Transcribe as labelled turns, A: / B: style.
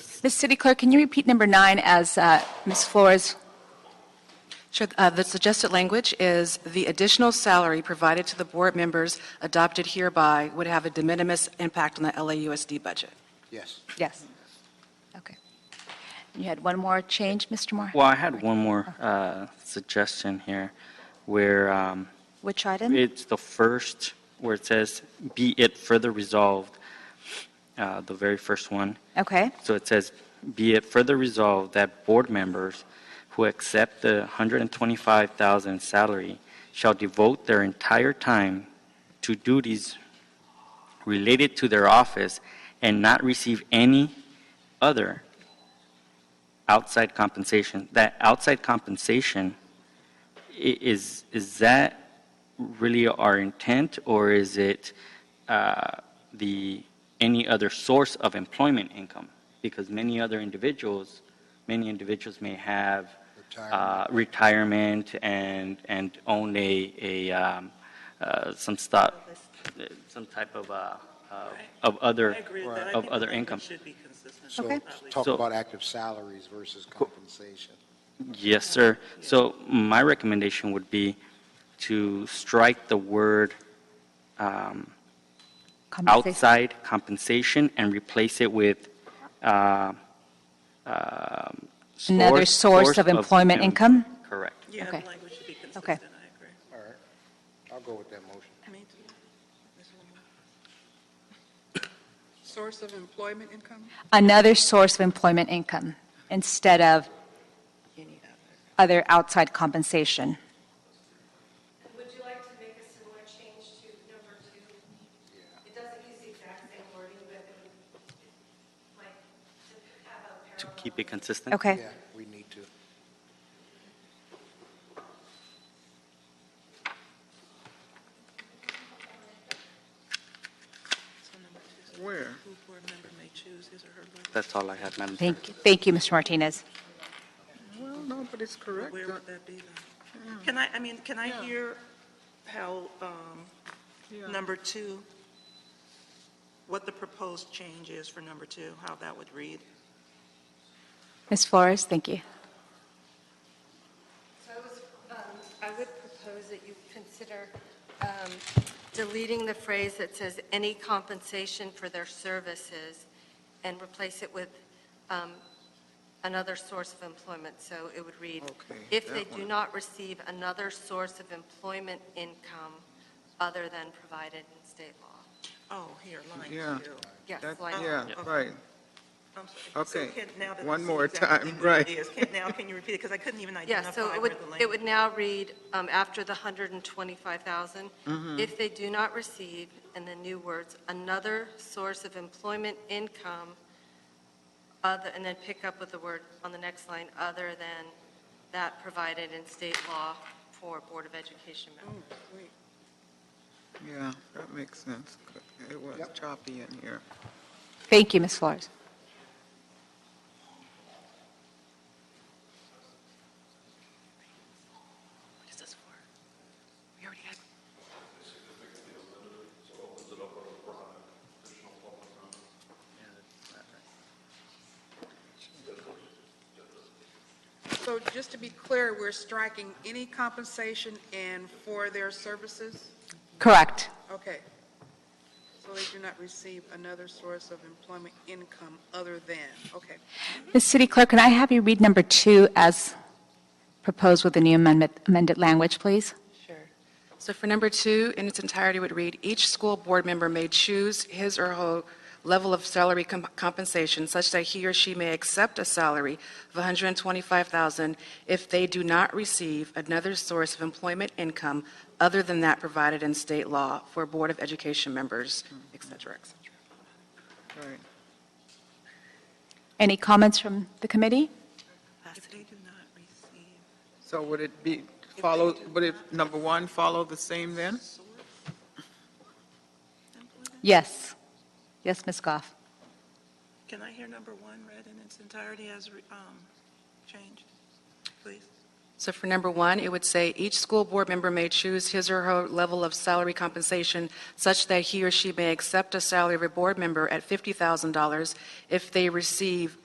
A: Ms. City Clerk, can you repeat number nine as uh, Ms. Flores?
B: Sure. Uh, The suggested language is, "The additional salary provided to the board members adopted hereby would have a de minimis impact on the LAUSD budget."
C: Yes.
A: Yes. Okay. You had one more change, Mr. Moore?
D: Well, I had one more uh, suggestion here, where um,
A: Which item?
D: it's the first, where it says, "Be it further resolved," uh, the very first one.
A: Okay.
D: So it says, "Be it further resolved that board members who accept the 125,000 salary shall devote their entire time to duties related to their office and not receive any other outside compensation." That outside compensation i- is is that really our intent, or is it uh, the any other source of employment income? Because many other individuals, many individuals may have uh, retirement and and own a a um, uh, some stock, some type of uh, uh, of other
E: I agree with that. I
D: of
E: think the
D: other
E: language
D: income.
E: should be consistent.
C: So
A: Okay.
E: At least.
C: talk
D: So-
C: about active salaries versus compensation.
D: Yes, sir. So my recommendation would be to strike the word um,
A: Compensation.
D: outside compensation and replace it with uh, um,
A: Another source of employment
D: em-
A: income?
D: Correct.
E: Yeah,
A: Okay.
E: the language should be consistent, I
A: Okay.
E: agree.
C: All right. I'll go with that motion.
E: Me too.
F: Source of employment income?
A: Another source of employment income instead of other outside compensation.
G: Would you like to make a similar change to number two? It doesn't use the exact same wording, but it would, like, to have a
D: To
G: parallel.
D: keep it consistent?
A: Okay.
C: Yeah, we need to.
E: So number two,
F: Where?
E: who board member may choose his or her language.
D: That's all I had, Madam Chair.
A: Thank, thank you, Mr. Martinez.
F: Well, no, but it's correct.
E: Where
F: Uh,
E: would that be then? Can I, I mean, can I
F: Yeah.
E: hear how um,
F: yeah.
E: number two, what the proposed change is for number two, how that would read?
A: Ms. Flores, thank you.
G: So I was, um, I would propose that you consider um, deleting the phrase that says any compensation for their services and replace it with um, another source of employment. So it would read,
F: Okay,
G: if they
F: that
G: do
F: one.
G: not receive another source of employment income other than provided in state law.
E: Oh, here, line
F: Yeah.
E: two.
G: Yes,
F: That-
G: line
F: Yeah,
E: Yeah.
F: right.
E: I'm sorry. So
F: Okay.
E: can- now that I
F: One
E: see
F: more
E: exactly
F: time,
E: what it
F: right.
E: is, can- Now, can you repeat it? Because I couldn't even
G: Yeah,
E: identify
G: so it
E: where
G: would,
E: the
G: it
E: language.
G: would now read, um, after the 125,000, if they do not receive, in the new words, another source of employment income, other, and then pick up with the word on the next line, other than that provided in state law for Board of Education members.
F: Yeah, that makes sense. It was
C: Yep.
F: choppy in here.
A: Thank you, Ms. Flores.
B: What is this for? We already had
F: So just to be clear, we're striking any compensation and for their services?
A: Correct.
F: Okay. So they do not receive another source of employment income other than, okay.
A: Ms. City Clerk, can I have you read number two as proposed with the new amendment, amended language, please?
B: Sure. So for number two, in its entirety would read, "Each school board member may choose his or her level of salary com- compensation such that he or she may accept a salary of 125000 if they do not receive another source of employment income other than that provided in state law for Board of Education members, et cetera, et cetera."
F: Right.
A: Any comments from the committee?
E: If they do not receive
F: So would it be, follow, would it, number one, follow the same then?
E: source employment?
A: Yes. Yes, Ms. Goff.
E: Can I hear number one read in its entirety as re- um, changed, please?
B: So for number one, it would say, "Each school board member may choose his or her level of salary compensation such that he or she may accept a salary of a board member at $50,000 if they receive